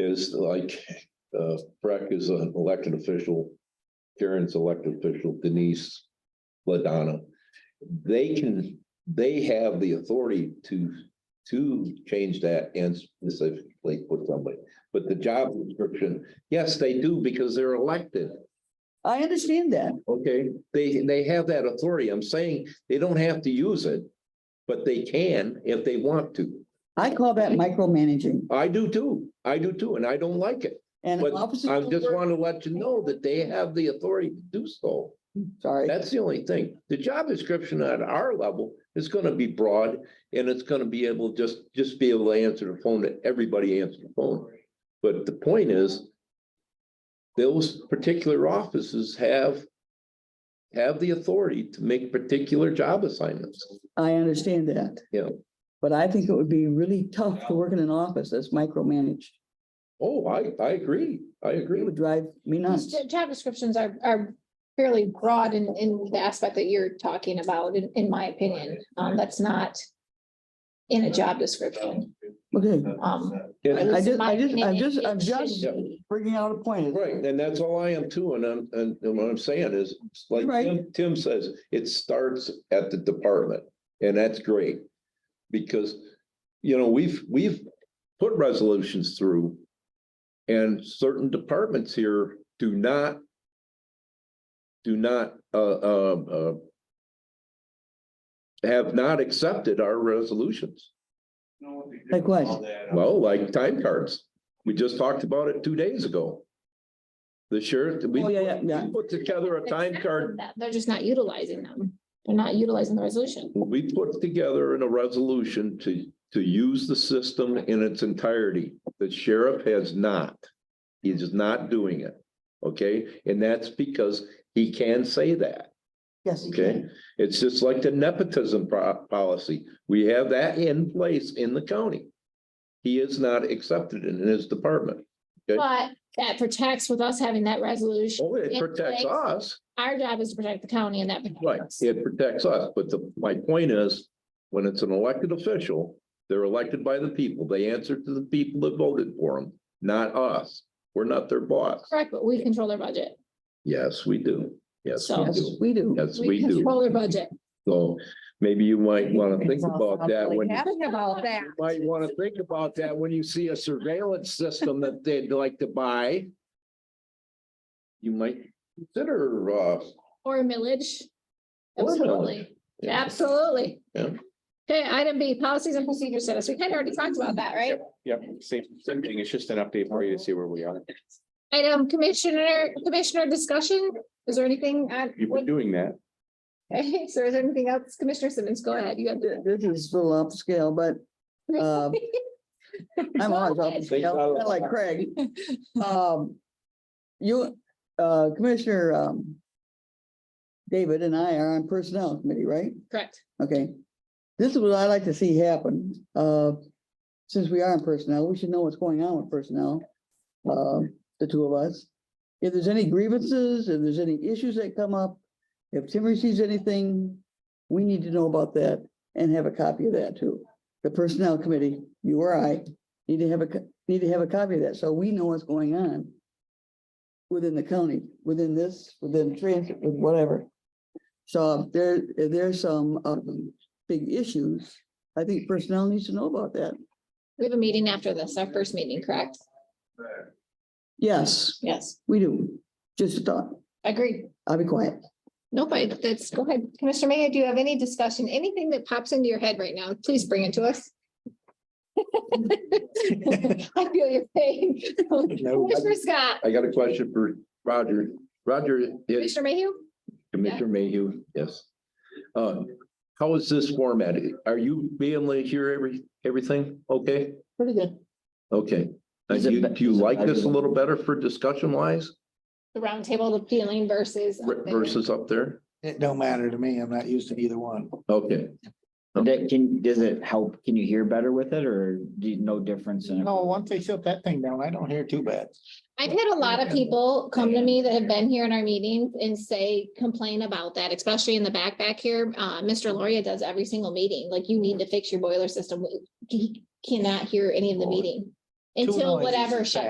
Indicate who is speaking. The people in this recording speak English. Speaker 1: is like, uh, Breck is an elected official, Karen's elected official, Denise Ladonna. They can, they have the authority to, to change that and specifically put somebody. But the job description, yes, they do because they're elected.
Speaker 2: I understand that.
Speaker 1: Okay, they, they have that authority. I'm saying they don't have to use it, but they can if they want to.
Speaker 2: I call that micromanaging
Speaker 1: I do too. I do too, and I don't like it.
Speaker 2: and
Speaker 1: But
Speaker 2: officers.
Speaker 1: I
Speaker 2: will
Speaker 1: just
Speaker 2: work-
Speaker 1: want to let you know that they have the authority to do so.
Speaker 2: Sorry,
Speaker 1: That's the only thing. The job description at our level is going to be broad and it's going to be able, just, just be able to answer the phone that everybody answers the phone. But the point is, those particular offices have, have the authority to make particular job assignments.
Speaker 2: I understand that.
Speaker 1: Yeah.
Speaker 2: But I think it would be really tough to work in an office that's micromanaged.
Speaker 1: Oh, I, I agree. I agree
Speaker 2: It
Speaker 1: with
Speaker 2: would drive me nuts.
Speaker 3: J- Job descriptions are, are fairly broad in, in the aspect that you're talking about, in, in my opinion. Um, that's not in a job description.
Speaker 2: Okay,
Speaker 1: Uh,
Speaker 3: Um,
Speaker 1: you.
Speaker 3: at least in
Speaker 2: just-
Speaker 3: my
Speaker 2: I just- I'm
Speaker 3: opinion,
Speaker 2: just-
Speaker 3: it
Speaker 2: I'm
Speaker 3: shouldn't
Speaker 2: just-
Speaker 3: be.
Speaker 2: bringing out a point.
Speaker 1: Right, and that's all I am too, and I'm, and and what I'm saying is, it's like
Speaker 2: Right.
Speaker 1: Tim- Tim says, it starts at the department, and that's great. Because, you know, we've, we've put resolutions through. And certain departments here do not. Do not, uh, uh, uh. Have not accepted our resolutions,
Speaker 2: Like what?
Speaker 1: well, like time cards, we just talked about it two days ago. The sheriff, we
Speaker 2: Oh, yeah, yeah, yeah.
Speaker 1: we put together a time card,
Speaker 3: That- They're just not utilizing them. They're not utilizing the resolution.
Speaker 1: we put together in a resolution to, to use the system in its entirety. The sheriff has not, he is not doing it, okay? And that's because he can say that,
Speaker 2: Yes. you
Speaker 1: okay?
Speaker 2: can.
Speaker 1: It's just like the nepotism pro- policy, we have that in place in the county. He is not accepted in his department, Okay.
Speaker 3: But that protects with us having that resolution.
Speaker 1: oh, it protects us.
Speaker 3: Our job is to protect the county and that. protects
Speaker 1: Right,
Speaker 3: us.
Speaker 1: it protects us, but the, my point is, when it's an elected official, they're elected by the people, they answer to the people that voted for them, not us. We're not their boss.
Speaker 3: Correct, but we control their budget.
Speaker 1: Yes, we do. Yes, we
Speaker 3: So-
Speaker 2: Yes,
Speaker 1: do.
Speaker 2: we do.
Speaker 1: Yes, we do.
Speaker 3: Control their budget.
Speaker 1: So maybe you might want to think about that when, you
Speaker 4: Happy about that.
Speaker 1: might want to think about that when you see a surveillance system that they'd like to buy. You might consider, uh,
Speaker 3: Or a millage.
Speaker 1: Or millage.
Speaker 3: Absolutely,
Speaker 1: yeah.
Speaker 3: absolutely.
Speaker 1: Yeah.
Speaker 3: Okay, item B, policies and procedures status. We kind of already talked about that, right?
Speaker 5: Yep, same, same thing. It's just an update for you to see where we are.
Speaker 3: Item commissioner, commissioner discussion. Is there anything? on-
Speaker 5: You've been doing that.
Speaker 3: Okay, So is there anything else? Commissioner Simmons, go ahead. You have
Speaker 2: Th- This is a little upscale, but
Speaker 1: Um,
Speaker 2: uh, I'm always
Speaker 3: Go
Speaker 2: off
Speaker 3: ahead.
Speaker 2: the scale, kinda like Craig. Um, you, uh, Commissioner, um, David and I are on Personnel Committee, right?
Speaker 3: Correct.
Speaker 2: Okay. This is what I like to see happen. Uh, since we are on Personnel, we should know what's going on with Personnel. Uh, the two of us. If there's any grievances, if there's any issues that come up, if Tim receives anything, we need to know about that and have a copy of that too. The Personnel Committee, you or I, need to have a, co- need to have a copy of that, so we know what's going on within the county, within this, within transit, with whatever. So if there, if there's some, um, big issues, I think personnel needs to know about that.
Speaker 3: We have a meeting after this, our first meeting, correct?
Speaker 2: Yes,
Speaker 3: Yes,
Speaker 2: we do. Just a thought.
Speaker 3: agreed.
Speaker 2: I'll be quiet.
Speaker 3: Nope, I- that's, go ahead. Commissioner Mayor, do you have any discussion, anything that pops into your head right now? Please bring it to us. I feel your pain. Commissioner Scott,
Speaker 1: I got a question for Roger. Roger, is
Speaker 3: Commissioner Mayhew?
Speaker 1: Commissioner Mayhew, yes. Uh, how is this formatted? Are you being able to hear every, everything? Okay,
Speaker 2: Pretty good.
Speaker 1: okay. Uh,
Speaker 2: Is it
Speaker 1: you-
Speaker 2: be-
Speaker 1: Do you
Speaker 2: is it
Speaker 1: like this a
Speaker 2: better?
Speaker 1: little better for discussion wise
Speaker 3: The roundtable of feeling versus.
Speaker 1: versus up there?
Speaker 6: It don't matter to me. I'm not used to either one.
Speaker 1: Okay,
Speaker 7: That can, does it help? Can you hear better with it or do you, no difference in it?
Speaker 6: No, once they shut that thing down, I don't hear too bad.
Speaker 3: I've had a lot of people come to me that have been here in our meetings and say, complain about that, especially in the back back here. Uh, Mr. Loria does every single meeting, like you need to fix your boiler system. We- He cannot hear any of the meeting.
Speaker 6: Too
Speaker 3: Until
Speaker 6: noisy.
Speaker 3: whatever shuts